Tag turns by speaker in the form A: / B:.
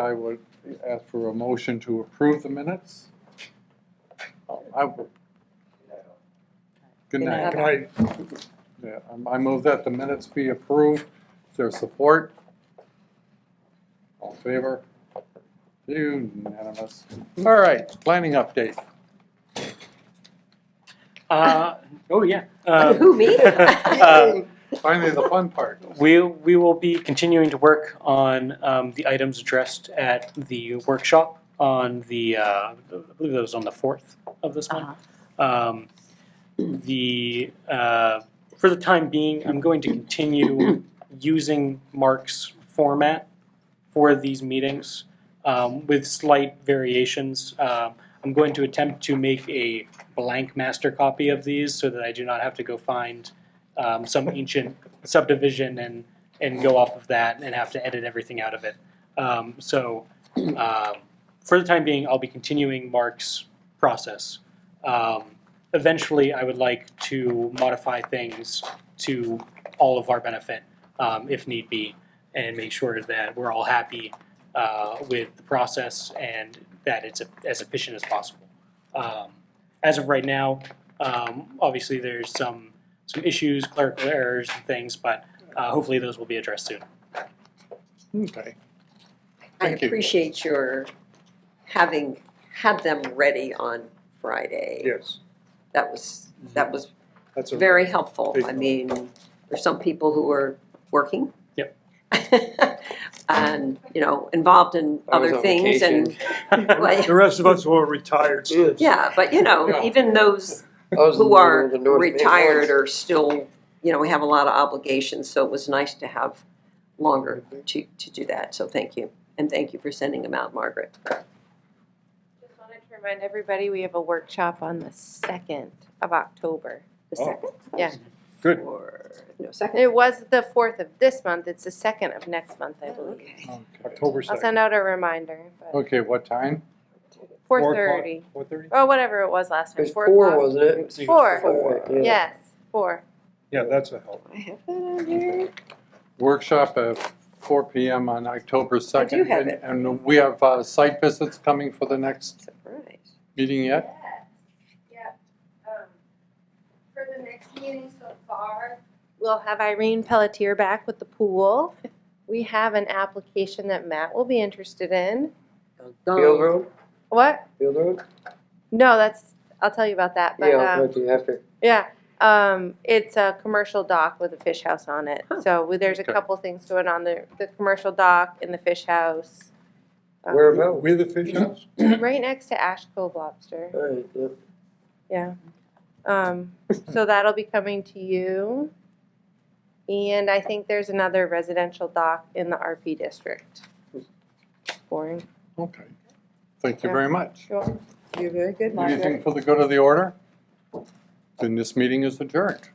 A: I would ask for a motion to approve the minutes. Oh, I would. Good
B: Good
A: night.
B: night.
C: Can I,
A: Yeah, I I move that the minutes be approved. Is there support? All in favor? Unanimous. All right, planning update.
D: Uh, oh, yeah. Um,
B: Who, me?
D: uh,
A: Finally, the fun part.
D: We, we will be continuing to work on um, the items addressed at the workshop on the, uh, I believe that was on the 4th of this month. Um, the, uh, for the time being, I'm going to continue using Mark's format for these meetings um, with slight variations. Um, I'm going to attempt to make a blank master copy of these so that I do not have to go find um, some ancient subdivision and, and go off of that and have to edit everything out of it. Um, so, um, for the time being, I'll be continuing Mark's process. Um, eventually, I would like to modify things to all of our benefit um, if need be and make sure that we're all happy uh, with the process and that it's as efficient as possible. Um, as of right now, um, obviously, there's some some issues, clerical errors, and things, but uh, hopefully those will be addressed soon.
A: Okay.
B: I
A: Thank you.
B: appreciate your having had them ready on Friday.
C: yes,
B: That was,
E: Mm-hmm.
B: that was
C: that's a.
B: very helpful.
C: Big
B: I mean, there's some people who are working.
D: Yep.
B: And, you know, involved in
E: I was
B: other
E: on
B: things and,
E: vacation.
B: well,
C: The rest of us who are retired still.
B: yeah, but you know,
A: Yeah.
B: even those
E: I was in
B: who
E: the
B: are
E: middle of the North Bay
B: retired
E: Woods.
B: are still, you know, we have a lot of obligations, so it was nice to have longer
A: Mm-hmm.
B: to, to do that, so thank you. And thank you for sending them out, Margaret.
F: Just wanted to remind everybody, we have a workshop on the second of October.
B: The
C: Oh.
B: second?
F: Yeah.
A: Good.
B: Or, no, second?
F: It was the fourth of this month, it's the second of next month, I believe.
B: Okay.
C: October
F: I'll
C: second.
F: send out a reminder, but
A: Okay, what time?
F: four thirty,
C: Four thirty?
F: or whatever it was last
E: It
F: time,
E: was
F: four
E: four,
F: o'clock.
E: wasn't it?
F: Four.
E: Yeah.
F: Yes, four.
C: Yeah, that's a help.
B: I have that on here.
A: Workshop at four PM on October second.
B: have it.
A: And we have uh, site visits coming for the next
B: Surprise.
A: meeting yet?
F: Yeah, um, for the next meeting so far. We'll have Irene Pelletier back with the pool. We have an application that Matt will be interested in.
E: Field Road,
F: What?
E: Field Road?
F: No, that's, I'll tell you about that, but,
E: Yeah,
F: um.
E: I'll talk to you after.
F: Yeah, um, it's a commercial dock with a fish house on it.
B: Huh.
F: So we- there's a
A: Okay.
F: couple things going on there, the commercial dock and the fish house. Um,
E: Where about?
C: With the fish house?
F: Right next to Ash Cove Lobster,
E: All right, yeah.
F: yeah. Um, so that'll be coming to you. And I think there's another residential dock in the RP district.
B: Hmm.
F: Boring.
A: Okay. Thank you very much.
F: Sure.
B: You're very good,
A: Anything for the good of the order? Then this meeting is adjourned.